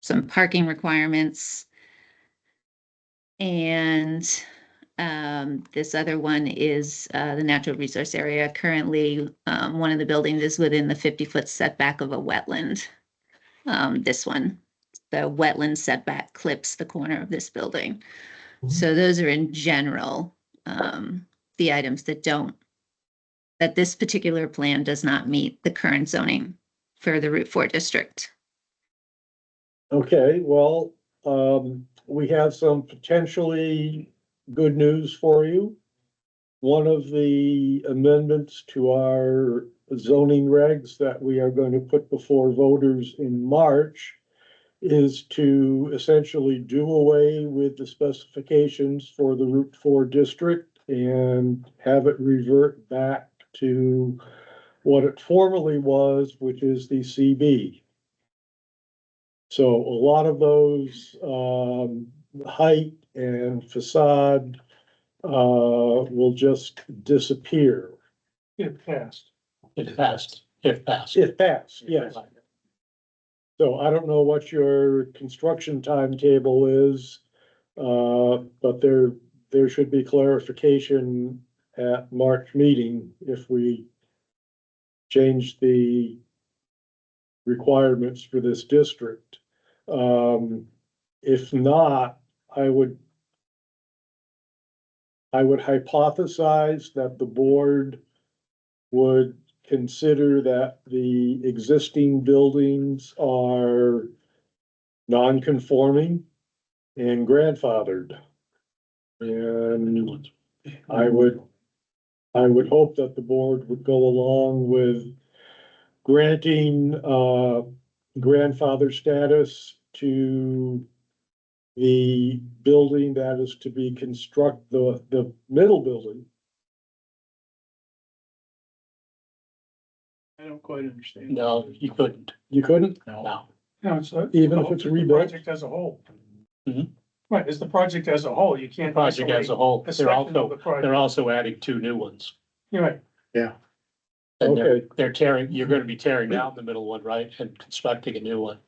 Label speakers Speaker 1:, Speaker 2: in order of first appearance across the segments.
Speaker 1: some parking requirements. And um, this other one is uh, the natural resource area. Currently, um, one of the buildings is within the 50-foot setback of a wetland. Um, This one, the wetland setback clips the corner of this building.
Speaker 2: Mhm.
Speaker 1: So those are in general, um, the items that don't, that this particular plan does not meet the current zoning for the Route 4 district.
Speaker 2: Okay, well, um, we have some potentially good news for you. One of the amendments to our zoning regs that we are going to put before voters in March is to essentially do away with the specifications for the Route Four district and have it revert back to what it formerly was, which is the CB. So a lot of those, um, height and facade, uh, will just disappear.
Speaker 3: It passed. It passed, it passed. Um,
Speaker 2: If passed, yes. So I don't know what your construction timetable is, uh, but there, there should be clarification at March meeting if we change the requirements for this district. Um, if not, I would I would hypothesize that the board would consider that the existing buildings are non-conforming and grandfathered. And I would, I would hope that the board would go along with granting, uh, grandfather status to the building that is to be construct, the, the middle building,
Speaker 3: I don't quite understand. No, you couldn't,
Speaker 2: you couldn't,
Speaker 3: no.
Speaker 4: No, it's. a-
Speaker 2: Even if it's
Speaker 4: the
Speaker 2: rebuilt?
Speaker 4: Project as a whole. Mm-hmm.
Speaker 3: Mhm.
Speaker 4: Right, it's the project as a whole, you
Speaker 3: The
Speaker 4: can't.
Speaker 3: project as a whole, they're also, they're also adding two new ones.
Speaker 4: You're right,
Speaker 3: And they're,
Speaker 2: okay,
Speaker 3: they're tearing, you're gonna be tearing down the middle one, right, and constructing a new one,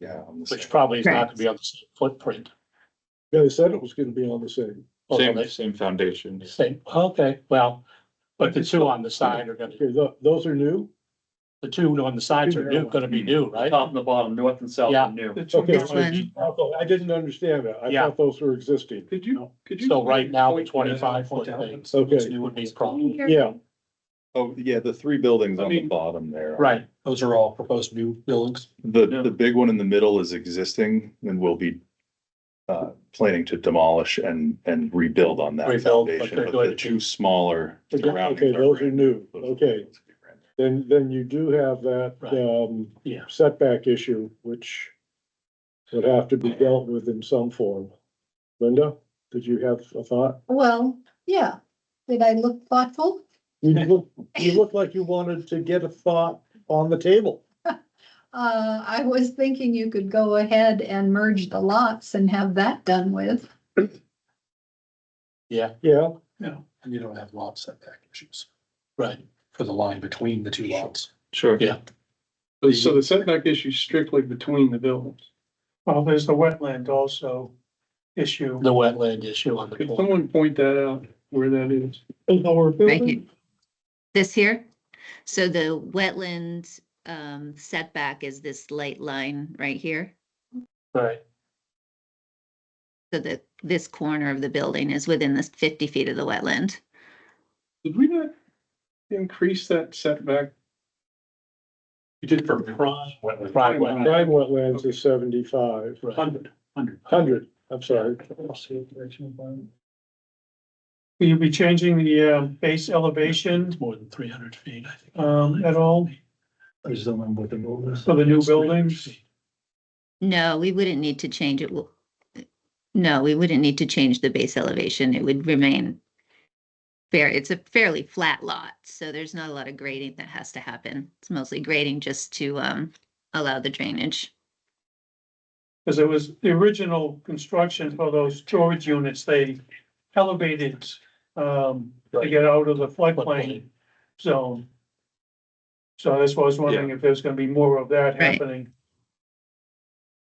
Speaker 5: Yeah. on the
Speaker 3: which
Speaker 5: same-
Speaker 3: probably is not gonna be on the same footprint.
Speaker 2: they said it was gonna be on the same.
Speaker 3: although
Speaker 5: Same,
Speaker 3: they
Speaker 5: same foundation.
Speaker 3: say, okay, well, but the two on the side are gonna,
Speaker 2: Okay, tho- those are new?
Speaker 3: the two on the sides are new, gonna be new, right?
Speaker 6: Top and the bottom, north and south
Speaker 3: Yeah.
Speaker 6: are new.
Speaker 4: the two
Speaker 2: Okay,
Speaker 1: This
Speaker 4: different-
Speaker 1: one,
Speaker 2: so I didn't understand that. I
Speaker 3: Yeah.
Speaker 2: thought those were existing.
Speaker 6: Could you, could
Speaker 3: So right now, the twenty-five foot thing
Speaker 2: Okay,
Speaker 3: would be a problem.
Speaker 2: yeah,
Speaker 5: Oh, yeah, the three buildings
Speaker 6: I
Speaker 5: on the
Speaker 6: mean-
Speaker 5: bottom there.
Speaker 3: Right, those are all proposed new buildings.
Speaker 5: The,
Speaker 6: Yeah.
Speaker 5: the big one in the middle is existing and we will be uh, planning to demolish and, and rebuild on that
Speaker 3: Rebuild, but
Speaker 5: foundation.
Speaker 3: they're
Speaker 5: But
Speaker 3: going
Speaker 5: the
Speaker 3: to-
Speaker 5: two smaller
Speaker 3: Okay,
Speaker 5: surroundings.
Speaker 2: those are
Speaker 5: brand
Speaker 2: new.
Speaker 5: Those are
Speaker 2: Okay.
Speaker 5: those are brand new.
Speaker 2: then, then you do have that,
Speaker 3: Right.
Speaker 2: um,
Speaker 3: Yeah.
Speaker 2: setback issue, which would have to be dealt with in some form. Linda, did you have a thought?
Speaker 7: Well, yeah, did I look thoughtful?
Speaker 2: You look, you look like you wanted to get a thought on the table.
Speaker 7: Uh, I was thinking you could go ahead and merge the lots and have that done with.
Speaker 3: Yeah,
Speaker 2: Yeah,
Speaker 4: No,
Speaker 8: And you don't have lot setback issues
Speaker 3: right.
Speaker 8: for the line between the two lots.
Speaker 6: Sure.
Speaker 3: Yeah.
Speaker 6: So the setback issue is strictly between the buildings.
Speaker 4: well, there's the wetland also issue.
Speaker 3: The wetland issue on the.
Speaker 6: Could
Speaker 3: corner.
Speaker 6: someone point that out where that is?
Speaker 1: right here. This here, so the wetland um, setback is this light line right here.
Speaker 3: Right,
Speaker 1: So that this corner of the building is within this 50 feet of the wetland.
Speaker 6: Did we not increase that setback?
Speaker 8: You did for prime
Speaker 3: prime wetland,
Speaker 2: prime wetlands is seventy-five,
Speaker 3: right.
Speaker 4: Hundred, hundred.
Speaker 2: hundred, I'm sorry.
Speaker 4: Will you be changing the uh, base elevation
Speaker 3: It's more than three hundred feet, I think.
Speaker 4: um, at all
Speaker 8: I just don't remember what the rule is.
Speaker 4: for the new buildings?
Speaker 1: No, we wouldn't need to change it. Well, No, we wouldn't need to change the base elevation. It would remain fair. It's a fairly flat lot, so there's not a lot of grading that has to happen. It's mostly grading just to um, allow the drainage.
Speaker 4: Because it was the original construction for those storage units, they elevated um, to
Speaker 3: Right.
Speaker 4: get out of the
Speaker 3: Floodplain.
Speaker 4: floodplain zone. So that's why I was wondering if there's gonna be more of that
Speaker 1: Right.
Speaker 4: happening.